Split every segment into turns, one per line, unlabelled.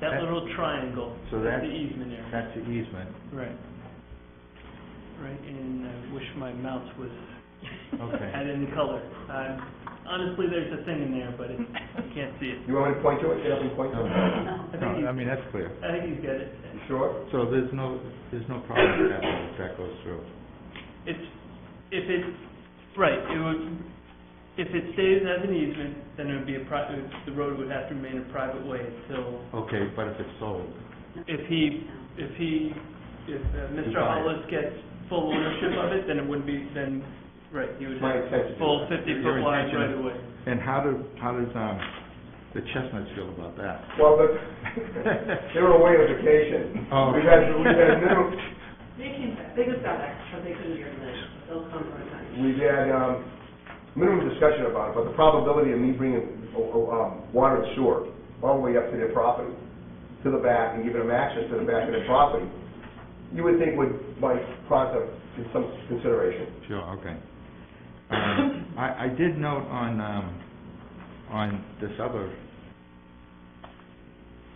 That
That-
little triangle,
So
that's the
that-
easement area.
That's the easement.
Right. Right, and I wish my mouse was,
Okay.
had any color. Uh, Honestly, there's a thing in there, but it- you can't see it.
You want me to point to it? Get up and point to it?
No,
I
no,
think
I
he's,
mean, that's clear.
I think he's got it.
You sure?
So there's no, there's no problem with that one if that goes through.
It's, if it, right, it would, if it stays as an easement, then it would be a pri, the road would have to remain a private way until,
Okay, but if it's sold,
if he, if he, if uh, Mr.
buy it.
Hollis gets full ownership of it, then it wouldn't be, then, right, he would
My
have
intention is-
full fifty
Your
foot wide
intention
right
is-
of way.
and how do, how does, um, the Chestnuts feel about that?
Well, but they were away on vacation.
Oh.
We had, we had minimum,
They came back, they just got back, but they couldn't hear tonight, they'll come for a time.
we had, um, minimum discussion about it, but the probability of me bringing, oh, oh, um, water and sewer all the way up to their property, to the back, and giving them access to the back of their property, you would think would, might prompt them to some consideration.
Sure, okay. Um, I, I did note on, um, on this other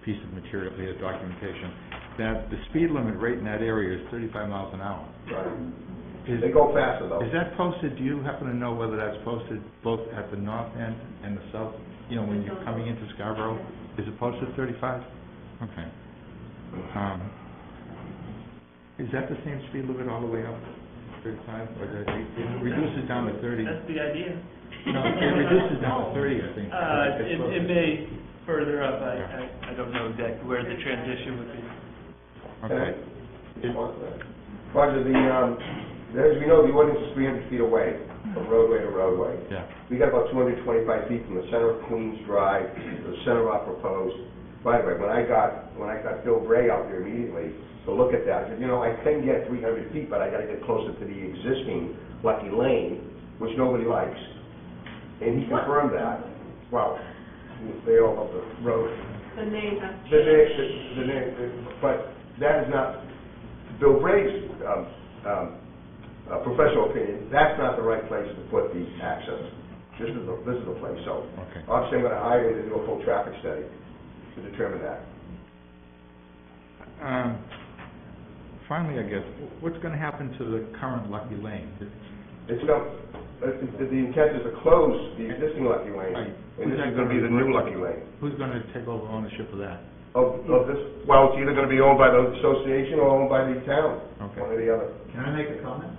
piece of material here, documentation, that the speed limit rate in that area is thirty-five miles an hour.
Right.
Is,
They go faster though.
is that posted, do you happen to know whether that's posted both at the north end and the south, you know, when you're coming into Scarborough? Is it posted thirty-five? Okay. Um, is that the same speed limit all the way up, thirty-five, or does it it reduces down to thirty?
That's the idea.
No, it reduces down to thirty, I think.
Uh, it, it may further up, I,
Yeah.
I, I don't know exactly where the transition would be.
Okay,
Roger, the, um, as we know, the ordinance is 300 feet away, from roadway to roadway.
yeah,
We got about 225 feet from the center of Queens Drive to the center of our proposed right-of-way. When I got, when I got Bill Bray out there immediately to look at that, I said, you know, I can get 300 feet, but I gotta get closer to the existing Lucky Lane, which nobody likes. And he confirmed that. Wow, they all love the road.
The name uh, has
The
changed.
next, the next, but that is not, Bill Bray's, um, um, uh, professional opinion, that's not the right place to put the access. This is the, this is the place, so.
okay.
I'm saying on a highway, they do a full traffic study to determine that.
Um, finally, I guess, what's gonna happen to the current Lucky Lane?
It's no, uh, the, the intent is to close the existing Lucky Lane,
Right.
and this is gonna be the new Lucky Lane.
Who's gonna take over ownership of that?
Of, of this, well, it's either gonna be owned by the association or owned by the town,
Okay.
one or the other.
Can I make a comment?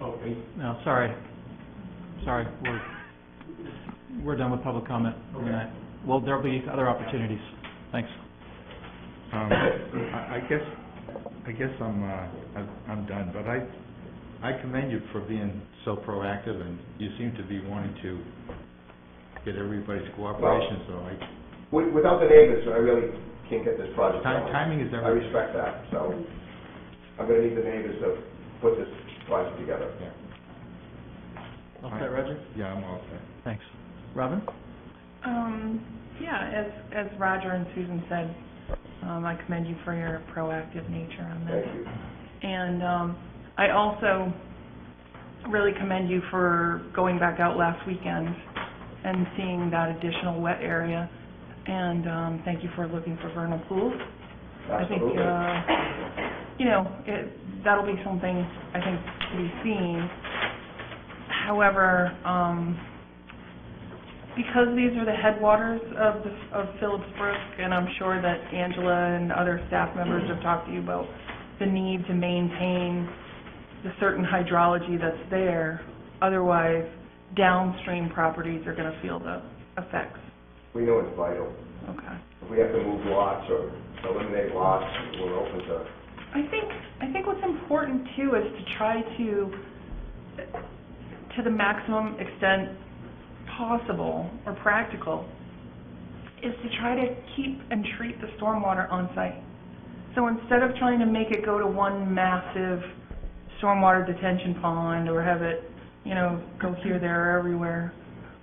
Okay.
No, sorry. Sorry, we're, we're done with public comment. for tonight. Well, there'll be other opportunities. Thanks.
Um, I I guess, I guess I'm, uh, I'm- I'm done, but I, I commend you for being so proactive, and you seem to be wanting to get everybody's cooperation, so I,
Wi- Without the neighbors, I really can't get this project
Ti-
going.
timing is
I
everything.
respect that, so I'm gonna need the neighbors to put this project together.
All set, Roger?
Yeah, I'm all set.
Thanks. Robin?
Um, yeah, as, as Roger and Susan said, um, I commend you for your proactive nature on this.
Thank you.
And, um, I also really commend you for going back out last weekend and seeing that additional wet area. And, um, thank you for looking for vernal pools. I think,
Absolutely.
uh, you know, it, that'll be something, I think, to be seen. However, um, because these are the headwaters of, the- of Phillips Brook, and I'm sure that Angela and other staff members have talked to you about the need to maintain the certain hydrology that's there, otherwise downstream properties are gonna feel the effects.
We know it's vital.
Okay.
If we have to move lots or eliminate lots, we're open to,
I think, I think what's important too is to try to, to the maximum extent possible or practical, is to try to keep and treat the stormwater on site. So instead of trying to make it go to one massive stormwater detention pond or have it, you know, go here, there, or everywhere,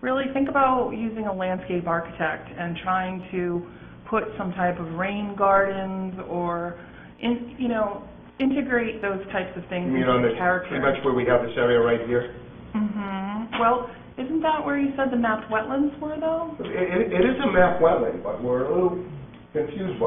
really think about using a landscape architect and trying to put some type of rain gardens or, in, you know, integrate those types of
you
things
mean on
into
the,
the character.
pretty much where we have this area right here?
hmm Well, isn't that where you said the mapped wetlands were, though?
It, it- it is a map wetland, but we're a little confused by